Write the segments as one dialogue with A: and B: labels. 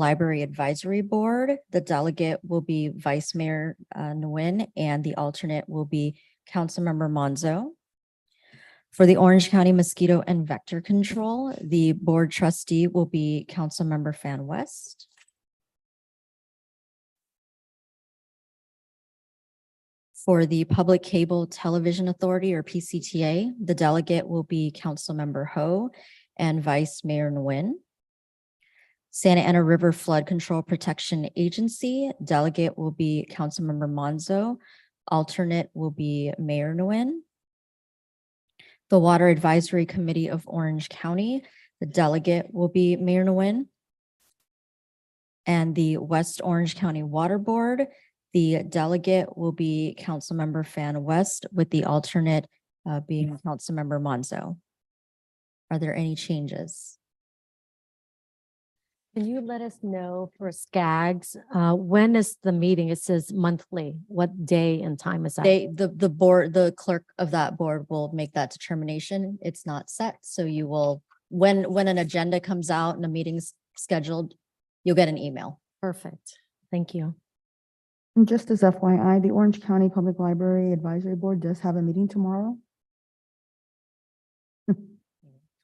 A: Library Advisory Board. The delegate will be Vice Mayor uh, Nguyen, and the alternate will be Councilmember Monzo. For the Orange County Mosquito and Vector Control, the board trustee will be Councilmember Fan West. For the Public Cable Television Authority or PCTA, the delegate will be Councilmember Ho and Vice Mayor Nguyen. Santa Ana River Flood Control Protection Agency, delegate will be Councilmember Monzo. Alternate will be Mayor Nguyen. The Water Advisory Committee of Orange County, the delegate will be Mayor Nguyen. And the West Orange County Water Board, the delegate will be Councilmember Fan West with the alternate uh, being Councilmember Monzo. Are there any changes?
B: Can you let us know for Skaggs, uh, when is the meeting? It says monthly. What day and time is that?
A: They, the, the board, the clerk of that board will make that determination. It's not set, so you will, when, when an agenda comes out and a meeting's scheduled, you'll get an email.
B: Perfect. Thank you.
C: And just as FYI, the Orange County Public Library Advisory Board does have a meeting tomorrow.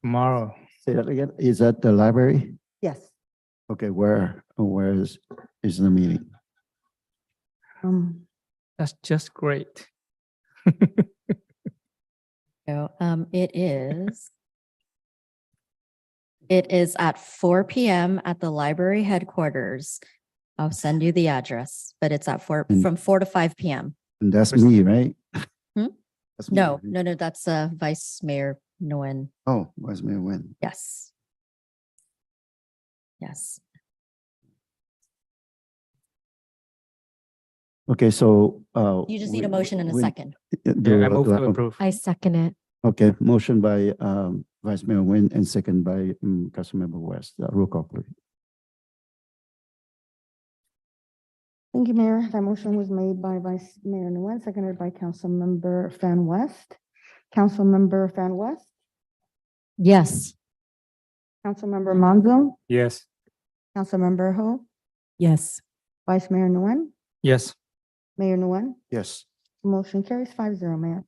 D: Tomorrow,
E: Say that again. Is that the library?
C: Yes.
E: Okay, where, where is, is the meeting?
C: Um,
D: that's just great.
A: So, um, it is. It is at four PM at the library headquarters. I'll send you the address, but it's at four,
E: And-
A: from four to five PM.
E: And that's
D: First-
E: me, right?
A: Hmm?
E: That's me,
A: No,
E: right?
A: no, no, that's, uh, Vice Mayor Nguyen.
E: Oh, was me when?
A: Yes. Yes.
E: Okay, so, uh.
A: You just need a
E: we-
A: motion and a
E: we-
A: second.
E: uh,
D: Yeah, I
E: do-
D: move
E: do
D: to approve.
B: I second it.
E: Okay, motion by, um, Vice Mayor Nguyen and second by, um, Councilmember West. Uh, Roll call, please.
C: Thank you, Mayor. That motion was made by Vice Mayor Nguyen, seconded by Councilmember Fan West. Councilmember Fan West,
B: Yes.
C: Councilmember Monzo,
D: Yes,
C: Councilmember Ho,
B: Yes.
C: Vice Mayor Nguyen,
D: yes,
C: Mayor Nguyen.
E: Yes.
C: Motion carries five zero, Mayor.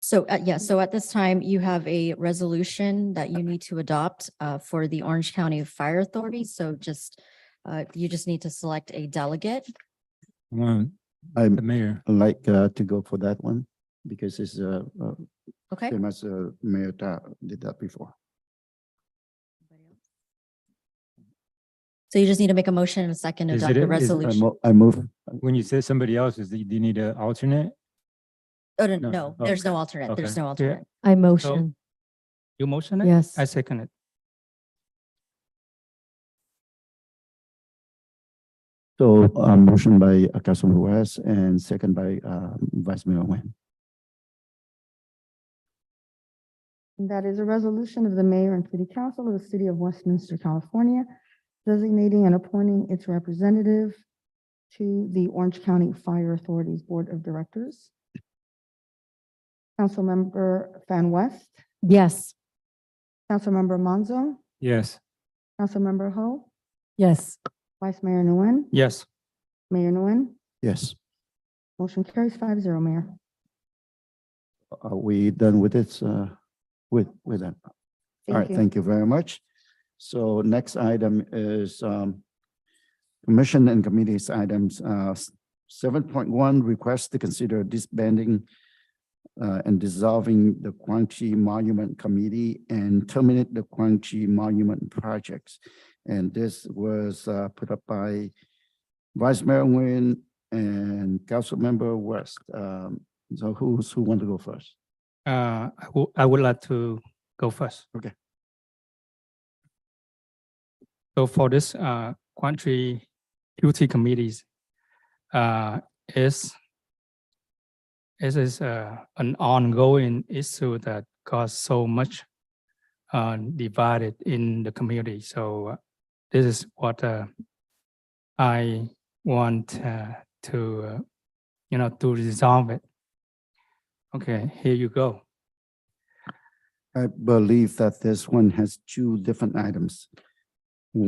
A: So, uh, yeah, so at this time, you have a resolution that you need to adopt uh, for the Orange County Fire Authority. So just, uh, you just need to select a delegate.
D: Mm, the
E: I'd
D: mayor.
E: like, uh, to go for that one because it's, uh, uh,
A: Okay?
E: famous, uh, Mayor Ta did that before.
A: So you just need to make a motion and a second to
D: Is
A: adopt
D: it
A: the
D: a- is it a
E: I
A: resolution.
E: mo- I move,
D: When you say somebody else, is, do you need an alternate?
A: Oh, no,
D: no,
A: no,
D: oh,
A: there's no alternate.
D: okay.
A: There's no
D: Yeah.
A: alternate.
B: I motion.
D: You motion it?
B: Yes.
D: I second it.
E: so, uh, motion by uh, Councilmember West and second by, uh, Vice Mayor Nguyen.
C: That is a resolution of the mayor and city council of the city of Westminster, California, designating and appointing its representative to the Orange County Fire Authority's Board of Directors. Councilmember Fan West,
B: Yes.
C: Councilmember Monzo,
D: Yes,
C: Councilmember Ho,
B: Yes.
C: Vice Mayor Nguyen,
D: yes,
C: Mayor Nguyen.
E: Yes,
C: Motion carries five zero, Mayor.
E: are we done with this, uh, with, with that? All right, thank you very much. So next item is, um, commission and committees items, uh, seven point one, request to consider disbanding uh, and dissolving the Quan Chi Monument Committee and terminate the Quan Chi Monument Projects. And this was, uh, put up by Vice Mayor Nguyen and Councilmember West. Um, so who's, who want to go first?
D: uh, I wou- I would like to go first.
E: Okay.
D: So for this, uh, country duty committees, uh, is it is, uh, an ongoing issue that caused so much uh, divided in the community. So uh, this is what, uh, I want, uh, to, uh, you know, to resolve it. Okay, here you go.
E: I believe that this one has two different items.